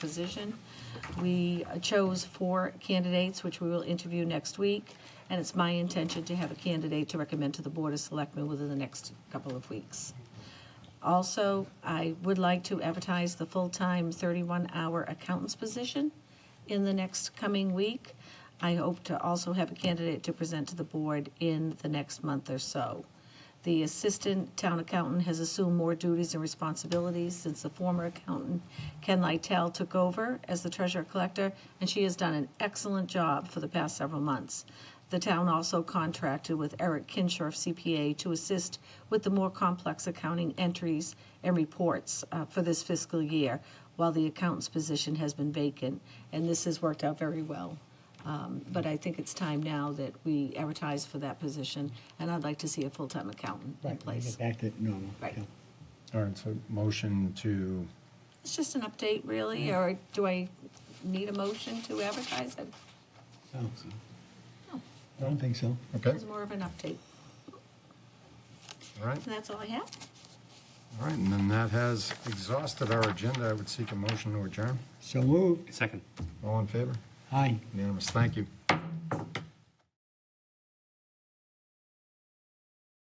position. We chose four candidates, which we will interview next week, and it's my intention to have a candidate to recommend to the Board of Selectmen within the next couple of weeks. Also, I would like to advertise the full-time 31-hour accountant's position in the next coming week. I hope to also have a candidate to present to the board in the next month or so. The assistant town accountant has assumed more duties and responsibilities since the former accountant, Ken Lytell, took over as the treasurer collector, and she has done an excellent job for the past several months. The town also contracted with Eric Kinshorf CPA to assist with the more complex accounting entries and reports uh, for this fiscal year, while the accountant's position has been vacant, and this has worked out very well. Um, But I think it's time now that we advertise for that position, and I'd like to see a full-time accountant in Right, when we place. get back to normal. Right. yeah. All right, so motion to, It's just an update, really, or do I need a motion to advertise it? Oh, so- I don't think so. okay, It's more of an update. all right, And that's all I have. all right, and then that has exhausted our agenda. I would seek a motion to adjourn. So moved. Second. All in favor? Aye. Unanimous, thank you.